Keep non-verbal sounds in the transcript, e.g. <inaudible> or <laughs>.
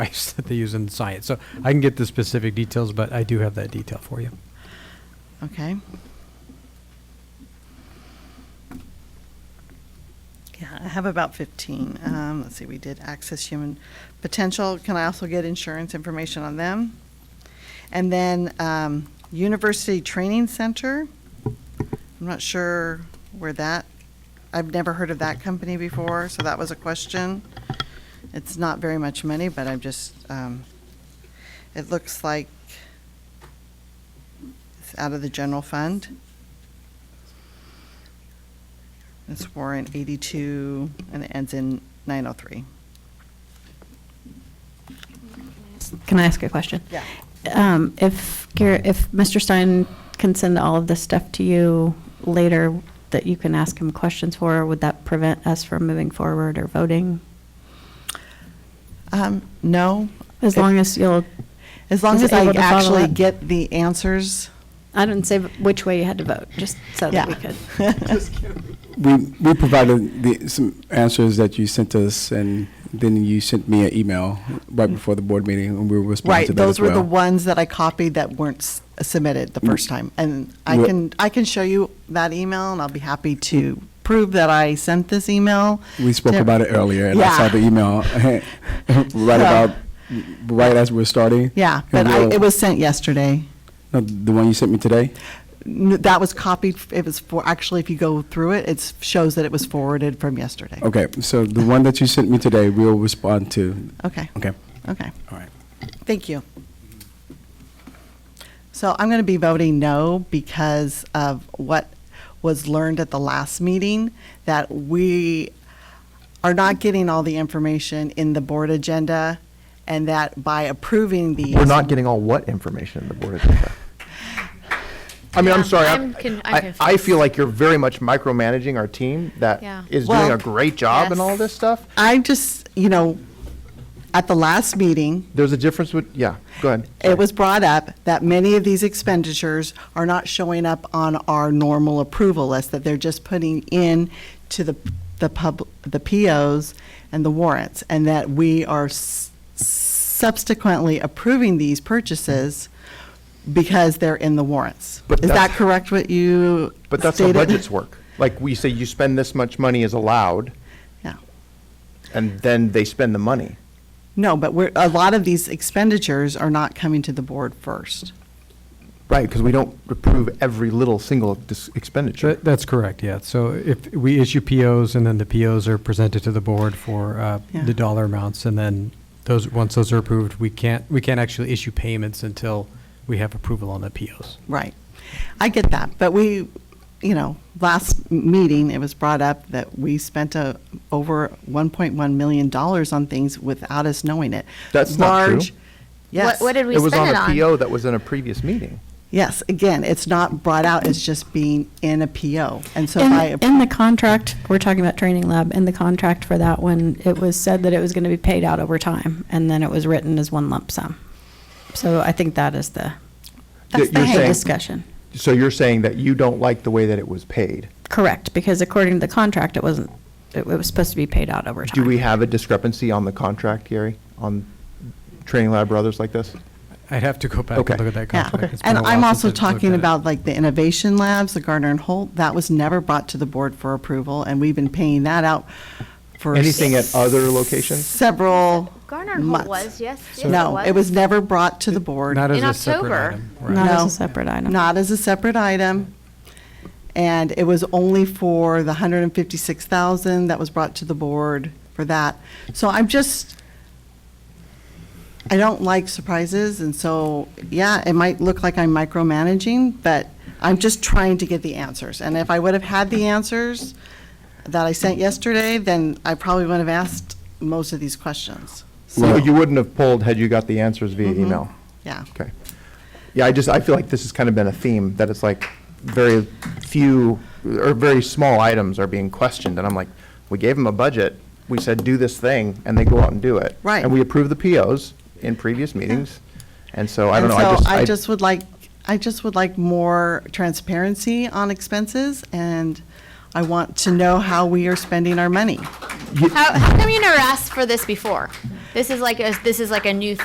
<laughs> ice that they use in science. So I can get the specific details, but I do have that detail for you. Okay. Yeah, I have about 15. Um, Let's see, we did access human potential. Can I also get insurance information on them? And then um, University Training Center. I'm not sure where that, I've never heard of that company before, so that was a question. It's not very much money, but I'm just, um, it looks like it's out of the general fund. It's warrant 82, and it ends in 903. Can I ask a question? Yeah. Um, If, Gar- if Mr. Stein can send all of this stuff to you later that you can ask him questions for, would that prevent us from moving forward or voting? Um, No. As long as you'll, As long is as I able to follow actually up. get the answers. I didn't say which way you had to vote, just so that we could. We, we provided the, some answers that you sent us, and then you sent me an email right before the board meeting, and we were responding Right, to that those as were the well. ones that I copied that weren't s- submitted the first time. And I Wha- can, I can show you that email, and I'll be happy to prove that I sent this email. We spoke to- about it earlier, and I saw Yeah. the email <laughs> right about, right as we're starting. Yeah, And but I- we'll- it was sent yesterday. no, The one you sent me today? N- That was copied, it was for, actually, if you go through it, it shows that it was forwarded from yesterday. Oh. Okay, so the one that you sent me today, we'll respond to. Okay, Okay, okay. all right. Thank you. So I'm going to be voting no because of what was learned at the last meeting, that we are not getting all the information in the board agenda, and that by approving these. We're not getting all what information in the board agenda? I mean, I'm Yeah, sorry, I'm con- I- I'm I, I feel confused. like you're very much micromanaging our team that Yeah. is doing Well- a great job in all Yes. this stuff. I just, you know, at the last meeting, There's a difference with, yeah, go ahead. it was brought up that many of these expenditures are not showing up on our normal approval list, that they're just putting in to the, the pub, the POs and the warrants, and that we are s- subsequently approving these purchases because they're in the warrants. But Is that that's- correct what you stated? But that's how budgets work. Like, we say you spend this much money is allowed, Yeah. and then they spend the money. No, but we're, a lot of these expenditures are not coming to the board first. Right, because we don't approve every little single dis- expenditure. That- That's correct, yeah. So if we issue POs and then the POs are presented to the board for uh, Yeah. the dollar amounts and then those, once those are approved, we can't, we can't actually issue payments until we have approval on the POs. Right. I get that, but we, you know, last meeting, it was brought up that we spent a, over $1.1 million dollars on things without us knowing it. That's not true. Large- Yes. What, what did we It was spend on it a on? PO that was in a previous meeting. Yes, again, it's not brought out, it's just being in a PO. And so by, In, in the contract, we're talking about training lab, in the contract for that one, it was said that it was going to be paid out over time, and then it was written as one lump sum. So I think that is the That's That you're the saying- discussion. So you're saying that you don't like the way that it was paid? Correct, because according to the contract, it wasn't, it was supposed to be paid out over time. Do we have a discrepancy on the contract, Gary, on training lab brothers like this? I'd have to go back and Okay. look at that yeah. contract. It's been And a while I'm since also I've looked talking at it. about like the Innovation Labs, the Gardner and Holt, that was never brought to the board for approval, and we've been paying that out for. Anything at other locations? Several Garner and months. Holt was, yes, yes, it No, it was was. never brought to the board. Not as in a separate October. item. right. Not as No. a separate item. Not as a separate item. And it was only for the 156,000 that was brought to the board for that. So I'm just, I don't like surprises, and so, yeah, it might look like I'm micromanaging, but I'm just trying to get the answers. And if I would have had the answers that I sent yesterday, then I probably wouldn't have asked most of these questions. So you wouldn't have pulled had you got the answers via Mm-hmm. email? Yeah. Okay. Yeah, I just, I feel like this has kind of been a theme, that it's like very few, or very small items are being questioned, and I'm like, we gave them a budget, we said, do this thing, and they go out and do it. Right. And we approved the POs in previous meetings, and so, I don't know, I And just. so I just would like, I just would like more transparency on expenses, and I want to know how we are spending our money. How, how come you never asked for this before? This is like a, this is like a new